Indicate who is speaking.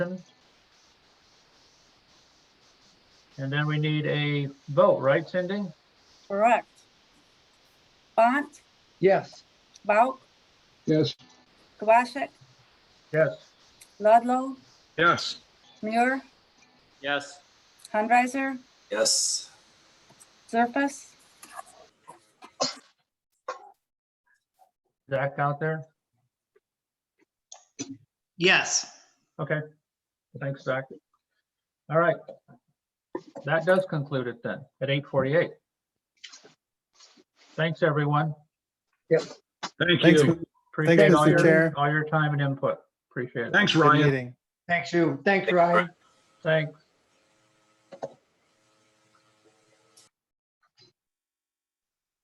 Speaker 1: And then we need a vote, right, Cindy?
Speaker 2: Correct. Bont,
Speaker 3: Yes.
Speaker 2: Bauk,
Speaker 3: Yes.
Speaker 2: Kubasik,
Speaker 1: Yes.
Speaker 2: Ludlow,
Speaker 4: Yes.
Speaker 2: Muir,
Speaker 5: Yes.
Speaker 2: Hunriser,
Speaker 5: Yes.
Speaker 2: Zerfus,
Speaker 1: Zach out there?
Speaker 6: Yes.
Speaker 1: Okay. Thanks, Zach. All right. That does conclude it then at 8:48. Thanks, everyone.
Speaker 4: Thank
Speaker 7: Thanks,
Speaker 4: you.
Speaker 1: Appreciate all
Speaker 7: Mr. Chair.
Speaker 1: your, all your time and input. Appreciate it.
Speaker 4: Thanks,
Speaker 7: good
Speaker 4: Ryan.
Speaker 7: meeting.
Speaker 3: Thanks, you. Thanks, Ryan.
Speaker 1: Thanks.